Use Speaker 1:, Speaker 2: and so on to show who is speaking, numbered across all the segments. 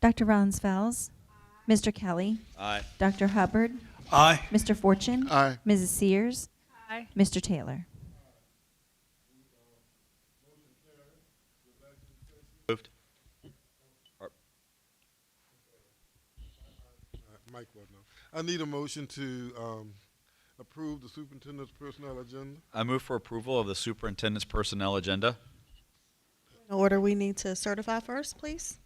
Speaker 1: Dr. Rollins Fowles. Mr. Kelly.
Speaker 2: Aye.
Speaker 1: Dr. Hubbard.
Speaker 3: Aye.
Speaker 1: Mr. Fortune.
Speaker 3: Aye.
Speaker 1: Mrs. Sears.
Speaker 4: Aye.
Speaker 1: Mr. Taylor.
Speaker 2: Moved.
Speaker 5: Uh, Mike Woodlow. I need a motion to um, approve the superintendent's personnel agenda.
Speaker 2: I move for approval of the superintendent's personnel agenda.
Speaker 6: In order, we need to certify first, please.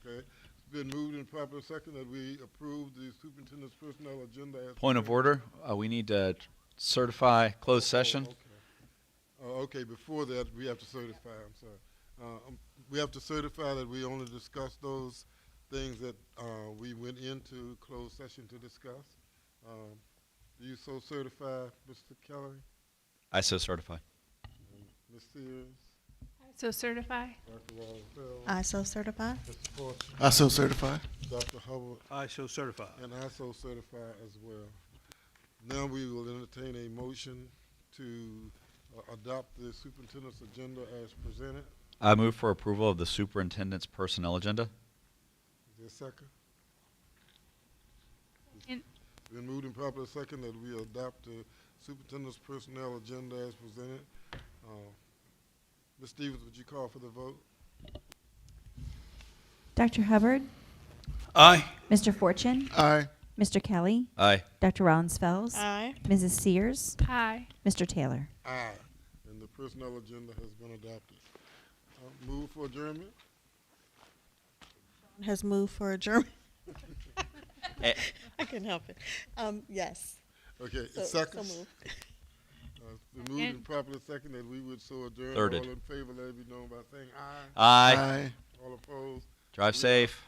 Speaker 5: Okay, it's been moved and properly second that we approve the superintendent's personnel agenda. as
Speaker 2: Point of
Speaker 5: presented.
Speaker 2: order, uh, we need to certify closed session.
Speaker 5: Oh, okay, before that, we have to certify, I'm sorry. Uh, um, We have to certify that we only discuss those things that uh, we went into closed session to discuss. Um, Do you so certify, Mr. Kelly,
Speaker 2: I so certify.
Speaker 5: Ms. Sears,
Speaker 4: So certify.
Speaker 5: Dr. Wallace,
Speaker 6: I so certify.
Speaker 5: Mr. Fortune,
Speaker 3: I so certify.
Speaker 5: Dr. Hubbard,
Speaker 3: I so certify.
Speaker 5: And I so certify as well. Now we will entertain a motion to uh, adopt the superintendent's agenda as presented.
Speaker 2: I move for approval of the superintendent's personnel agenda.
Speaker 5: Is there a second?
Speaker 4: In-
Speaker 5: Been moved and properly second that we adopt the superintendent's personnel agenda as presented. Uh, Ms. Stevens, would you call for the vote?
Speaker 1: Dr. Hubbard.
Speaker 3: Aye.
Speaker 1: Mr. Fortune.
Speaker 3: Aye.
Speaker 1: Mr. Kelly.
Speaker 2: Aye.
Speaker 1: Dr. Rollins Fells.
Speaker 6: Aye.
Speaker 1: Mrs. Sears.
Speaker 4: Aye.
Speaker 1: Mr. Taylor.
Speaker 5: Aye. And the personnel agenda has been adopted. Uh, Move for adjournment?
Speaker 6: Has moved for adjournment.
Speaker 2: Eh.
Speaker 6: I couldn't help it. Um, yes.
Speaker 5: Okay,
Speaker 6: So, so
Speaker 5: seconds?
Speaker 6: moved.
Speaker 5: Uh, It's been moved and properly second that we would so adjourn.
Speaker 2: Thirded.
Speaker 5: All in favor, let it be known by saying aye.
Speaker 2: Aye.
Speaker 5: All opposed?
Speaker 2: Drive safe.